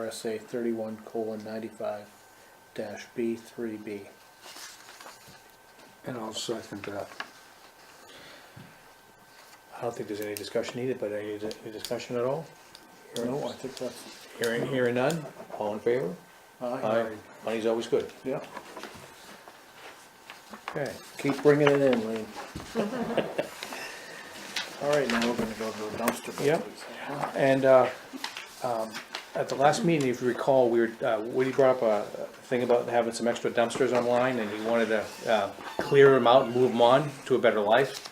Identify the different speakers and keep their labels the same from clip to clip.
Speaker 1: RSA thirty-one colon ninety-five dash B three B.
Speaker 2: And I'll second that.
Speaker 3: I don't think there's any discussion needed, but any, any discussion at all?
Speaker 1: No, I think that's,
Speaker 3: Hearing, hearing none, all in favor?
Speaker 1: aye,
Speaker 3: Aye, money's always good.
Speaker 1: yeah,
Speaker 3: Okay.
Speaker 1: keep bringing it in, Lean. All right, now we're gonna go to the dumpster.
Speaker 3: Yep.
Speaker 1: business.
Speaker 3: And, uh, um, at the last meeting, if you recall, we were, uh, Woody brought up a a thing about having some extra dumpsters online, and he wanted to, uh, clear them out and move them on to a better life.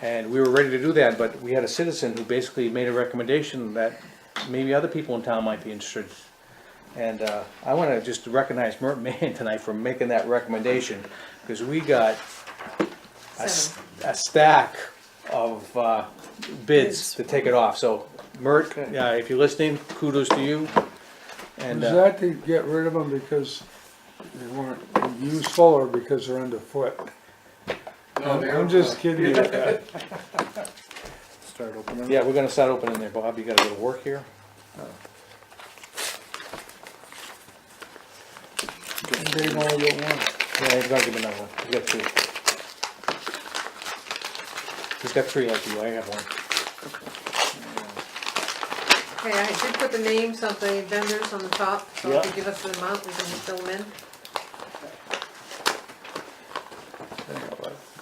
Speaker 3: And we were ready to do that, but we had a citizen who basically made a recommendation that maybe other people in town might be interested. And, uh, I wanna just recognize Mert Mann tonight for making that recommendation, cause we got a s- a stack of uh, bids to take it off, so Mert, uh,
Speaker 1: Okay.
Speaker 3: if you're listening, kudos to you.
Speaker 2: Is
Speaker 3: And, uh,
Speaker 2: that to get rid of them because they weren't useful or because they're underfoot?
Speaker 1: Oh,
Speaker 2: I'm just kidding you.
Speaker 1: Start opening.
Speaker 3: yeah, we're gonna start opening there, Bob, you got a little work here.
Speaker 2: They've only got one.
Speaker 3: Yeah, he's gonna give me another one, he's got two. He's got three like you, I have one.
Speaker 4: Okay, I did put the names of the vendors on the top, so if
Speaker 3: Yeah.
Speaker 4: you give us the amount, we can fill them in.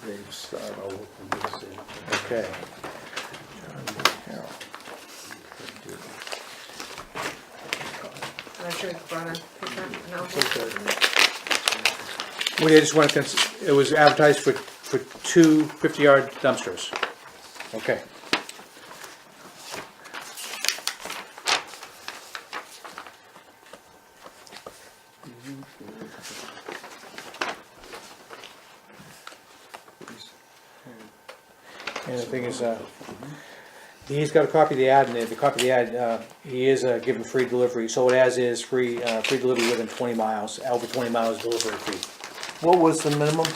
Speaker 2: They've started all with this thing.
Speaker 3: Okay.
Speaker 4: And I should have brought a paper and envelope.
Speaker 2: Okay.
Speaker 3: Woody, I just wanna, cons- it was advertised for, for two fifty-yard dumpsters. Okay. And the thing is, uh, he's got a copy of the ad, and the copy of the ad, uh, he is uh, giving free delivery, so it as is, free, uh, free delivery within twenty miles, over twenty miles delivery fee.
Speaker 1: What was the minimum?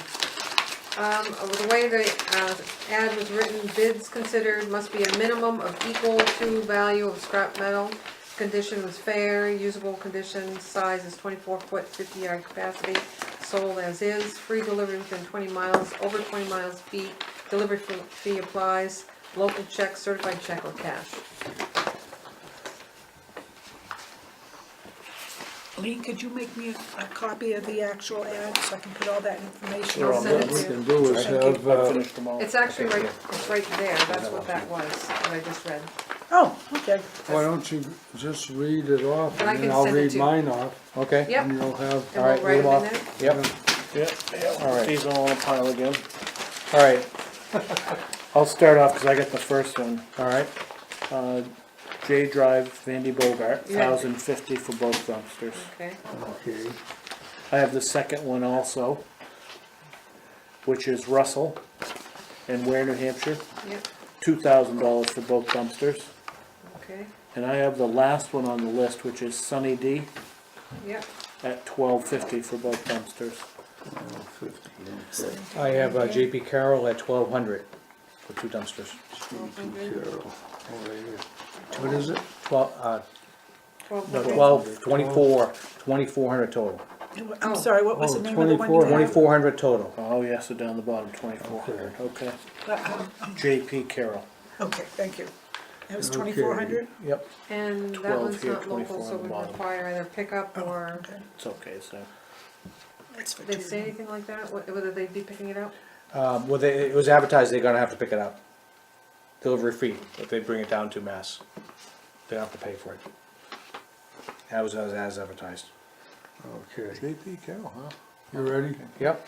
Speaker 4: Um, uh, the way the, uh, ad was written, bids considered must be a minimum of equal to value of scrap metal. Condition was fair, usable condition, size is twenty-four foot, fifty yard capacity, sold as is, free delivery within twenty miles, over twenty miles fee, delivery fee fee applies, local check, certified check or cash.
Speaker 5: Lee, could you make me a a copy of the actual ad so I can put all that information
Speaker 4: Sure, I'll
Speaker 5: on
Speaker 4: Send it to
Speaker 2: What we
Speaker 4: you.
Speaker 2: can do is have,
Speaker 1: I
Speaker 2: uh,
Speaker 1: finished them all.
Speaker 4: It's actually
Speaker 3: Okay,
Speaker 4: right,
Speaker 3: yeah.
Speaker 4: it's right there, that's what that was, what I just read.
Speaker 5: Oh, okay.
Speaker 2: why don't you just read it off
Speaker 4: And I
Speaker 2: and then
Speaker 4: can
Speaker 2: I'll
Speaker 4: send it
Speaker 2: read
Speaker 4: to-
Speaker 2: mine off.
Speaker 3: Okay?
Speaker 4: Yep.
Speaker 2: And you'll
Speaker 4: And
Speaker 2: have.
Speaker 4: we'll write
Speaker 3: leave
Speaker 4: them in
Speaker 3: off.
Speaker 4: there.
Speaker 3: Yep,
Speaker 1: Yeah, yeah,
Speaker 3: All right.
Speaker 1: these all in a pile again.
Speaker 3: all right,
Speaker 1: I'll start off, cause I got the first one.
Speaker 3: all right.
Speaker 1: Uh, J Drive, Vandy Bogart,
Speaker 4: Yeah.
Speaker 1: thousand fifty for both dumpsters.
Speaker 4: Okay,
Speaker 2: Okay,
Speaker 1: I have the second one also, which is Russell and Ware, New Hampshire,
Speaker 4: yep,
Speaker 1: two thousand dollars for both dumpsters.
Speaker 4: okay,
Speaker 1: And I have the last one on the list, which is Sunny D
Speaker 4: yep,
Speaker 1: at twelve fifty for both dumpsters.
Speaker 2: fifteen,
Speaker 3: I have uh, JP Carroll at twelve hundred for two dumpsters.
Speaker 2: Carol, over here. What is it?
Speaker 3: Twelve, uh,
Speaker 4: twelve
Speaker 3: no,
Speaker 4: hundred.
Speaker 3: twelve, twenty-four, twenty-four hundred total,
Speaker 5: I'm sorry, what was the
Speaker 2: Oh,
Speaker 5: name of the one you
Speaker 2: 24.
Speaker 5: had?
Speaker 3: twenty-four hundred total.
Speaker 1: Oh, yes, so down the bottom, twenty-four hundred, okay.
Speaker 5: Uh,
Speaker 1: JP Carroll,
Speaker 5: Okay, thank you. That was
Speaker 2: Okay.
Speaker 5: twenty-four hundred?
Speaker 3: Yep,
Speaker 4: And that
Speaker 1: 12
Speaker 4: one's
Speaker 1: here,
Speaker 4: not local,
Speaker 1: 24
Speaker 4: so
Speaker 1: on the
Speaker 4: we
Speaker 1: bottom.
Speaker 4: require either pickup or,
Speaker 5: Okay,
Speaker 1: it's okay, so.
Speaker 5: that's for
Speaker 4: did they say
Speaker 5: Judy.
Speaker 4: anything like that, wh- whether they'd be picking it up?
Speaker 3: um, well, they, it was advertised, they're gonna have to pick it up. Delivery fee, if they bring it down to Mass, they don't have to pay for it. That was as as advertised.
Speaker 2: Okay,
Speaker 1: JP Carroll, huh?
Speaker 2: you ready?
Speaker 3: Yep,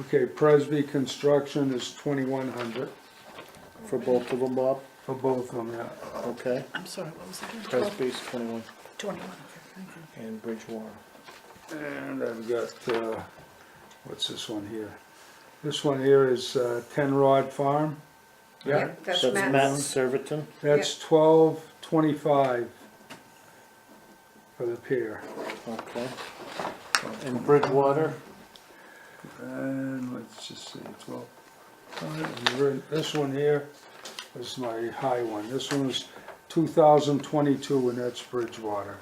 Speaker 2: Okay, Presby Construction is twenty-one hundred
Speaker 1: For both of them, Bob,
Speaker 2: for both of them, yeah.
Speaker 1: okay.
Speaker 5: I'm sorry, what was it? again? Twelve-
Speaker 1: Presby's twenty-one.
Speaker 5: Twenty-one, okay, thank you.
Speaker 3: and Bridgewater.
Speaker 2: And I've got, uh, what's this one here? This one here is uh, Ten Rod Farm.
Speaker 3: Yeah,
Speaker 4: That's
Speaker 1: That's Matt
Speaker 4: Matt's.
Speaker 1: Serviton,
Speaker 2: That's twelve twenty-five for the pier.
Speaker 1: okay. And Bridgewater,
Speaker 2: And let's just see, twelve. All right, and we're- This one here is my high one. This one's two thousand twenty-two, and that's Bridgewater.